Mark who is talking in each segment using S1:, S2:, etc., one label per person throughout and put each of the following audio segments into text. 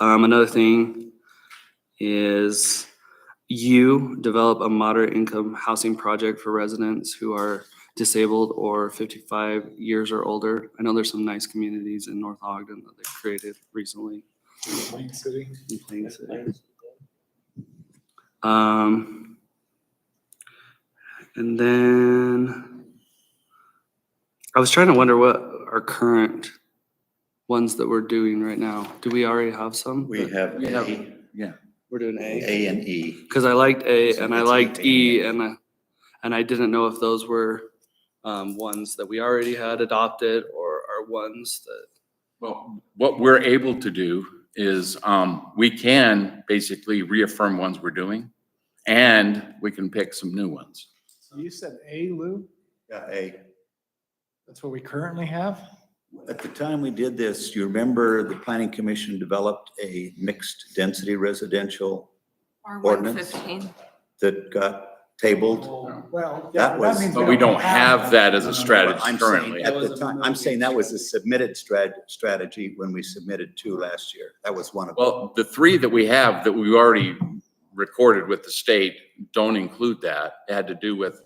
S1: Um, another thing is you develop a moderate income housing project for residents who are disabled or fifty-five years or older. I know there's some nice communities in North Ogden that they've created recently
S2: Plain City.
S1: in Plain City. Um, and then I was trying to wonder what our current ones that we're doing right now. Do we already have some?
S3: We have
S1: We have-
S3: A,
S1: We're doing A.
S3: A and E.
S1: Cause I liked A
S3: So
S1: and I
S3: it's
S1: liked
S3: A.
S1: E and I, and I didn't know if those were um, ones that we already had adopted or are ones that,
S4: Well, what we're able to do is, um, we can basically reaffirm ones we're doing, and we can pick some new ones.
S2: You said A, Lou?
S3: Yeah, A.
S2: That's what we currently have?
S3: At the time we did this, you remember the planning commission developed a mixed density residential
S5: Or
S3: Ordinance?
S5: 115.
S3: that got tabled.
S2: Well.
S3: yeah, That was-
S4: But we don't have that as a strategy
S3: I'm saying
S4: currently.
S3: At the time, I'm saying that was a submitted strat, strategy when we submitted two last year. That was one of them.
S4: Well, the three that we have that we already recorded with the state don't include that. It had to do with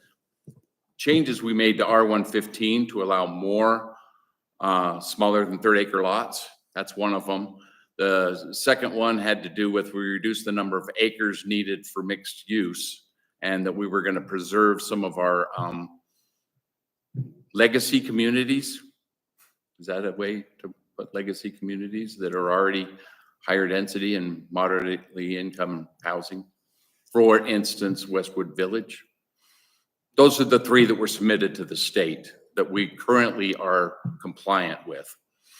S4: changes we made to R one fifteen to allow more, uh, smaller than third acre lots. That's one of them. The second one had to do with we reduced the number of acres needed for mixed use and that we were gonna preserve some of our, um, legacy communities. Is that a way to put legacy communities that are already higher density and moderately income housing. For instance, Westwood Village. Those are the three that were submitted to the state that we currently are compliant with.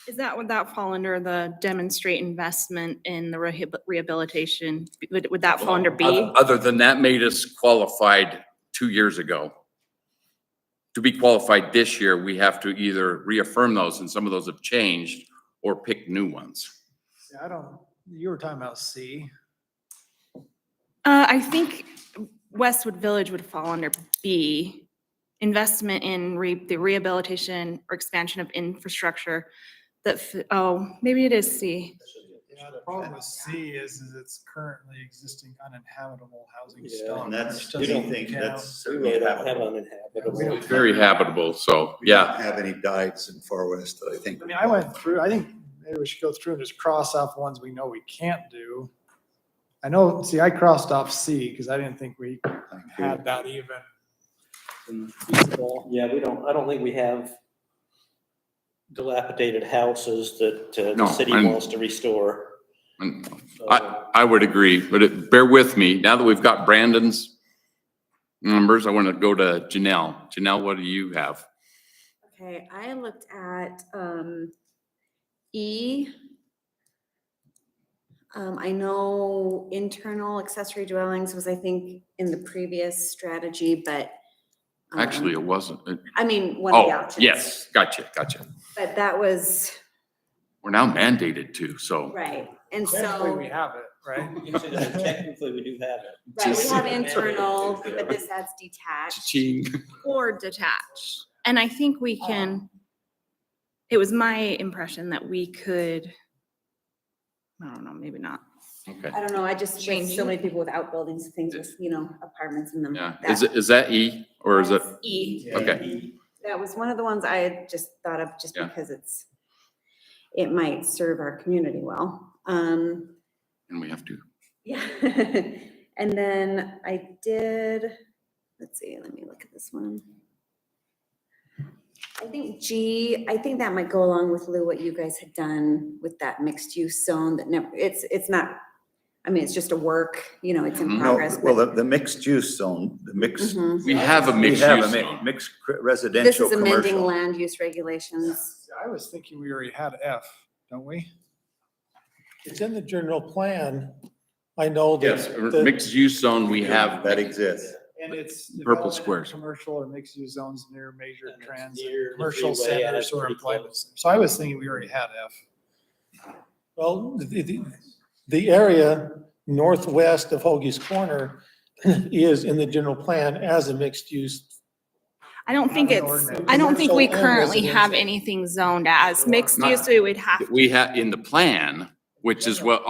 S6: Is that, would that fall under the demonstrate investment in the rehab- rehabilitation? Would, would that fall under B?
S4: Other than that made us qualified two years ago. To be qualified this year, we have to either reaffirm those, and some of those have changed, or pick new ones.
S2: I don't, you were talking about C.
S6: Uh, I think Westwood Village would fall under B. Investment in re, the rehabilitation or expansion of infrastructure that, f- oh, maybe it is C.
S2: Yeah, the problem with C is, is it's currently existing uninhabitable housing
S7: Yeah,
S2: stock.
S3: And that's
S2: which doesn't
S3: anything,
S2: count.
S3: that's
S7: We
S3: certainly
S7: really don't have
S3: happening.
S7: uninhabitable.
S4: Very habitable, so,
S3: We
S4: yeah.
S3: don't Have any diets in Far West that I think.
S2: I mean, I went through, I think maybe we should go through and just cross off ones we know we can't do. I know, see, I crossed off C because I didn't think we had that even
S1: um,
S2: feasible.
S7: Yeah, we don't, I don't think we have dilapidated houses that uh,
S4: No,
S7: the city
S4: I'm-
S7: wants to restore.
S4: And
S7: So,
S4: I would agree, but it- bear with me. Now that we've got Brandon's numbers, I want to go to Janelle. Janelle, what do you have?
S8: Okay, I looked at um E. Um, I know internal accessory dwellings was, I think, in the previous strategy, but. um,
S4: Actually, it wasn't. it-
S8: I mean, one of the
S4: Oh,
S8: options.
S4: yes, gotcha, gotcha.
S8: But that was,
S4: We're now mandated to, so.
S8: right, and
S2: Technically, we
S8: so,
S2: have it, right?
S7: Technically, we do have it.
S8: right, we
S4: just-
S8: have internal, but this adds detached.
S4: Cha-ching.
S6: Or detached. Uh. And I think we can, it was my impression that we could, I don't know, maybe not.
S4: Okay,
S8: I don't know, I just, with
S6: Changing.
S8: so many people with outbuildings, things with, you know, apartments in them.
S4: yeah.
S8: that-
S4: Is, it is that E or is it?
S8: That's E.
S4: Okay.
S8: That was one of the ones I had just thought of, just
S4: Yeah.
S8: because it's, it might serve our community well. Um,
S4: And we have to,
S8: yeah. And then I did, let's see, let me look at this one. I think G, I think that might go along with Lou, what you guys had done with that mixed use zone that never, it's, it's not, I mean, it's just a work, you know, it's in
S3: No,
S4: Mhm.
S8: progress.
S3: well, the,
S8: but-
S3: the mixed use zone, the mixed.
S8: Mhm.
S4: we have a
S3: we
S4: mixed
S3: have a
S4: use
S3: mi-
S4: zone.
S3: Mixed cr-
S8: This
S3: residential,
S8: is amending
S3: commercial.
S8: land use regulations.
S2: I was thinking we already had F, don't we?
S9: It's in the general plan. I know
S4: Yes,
S9: that,
S4: or
S9: that-
S4: mixed use zone, we have.
S3: That exists.
S2: And it's.
S4: Purple
S2: development of
S4: squares.
S2: Commercial or mixed use zones near major
S7: And it's
S2: transit,
S7: near the
S2: commercial
S7: freeway, yeah,
S2: centers
S7: that's
S2: or
S7: pretty
S2: employment.
S7: close.
S2: centers. So I was thinking we already had F.
S9: well, the, the, the area northwest of Hoagie's Corner is in the general plan as a mixed use.
S6: I don't think
S2: Have an
S6: it's,
S2: ordinance.
S6: I don't think we
S9: Commercial and
S6: currently have
S9: residential.
S6: anything zoned as mixed
S4: Not-
S6: use, we would have.
S4: that
S6: to.
S4: We have in the plan, which is what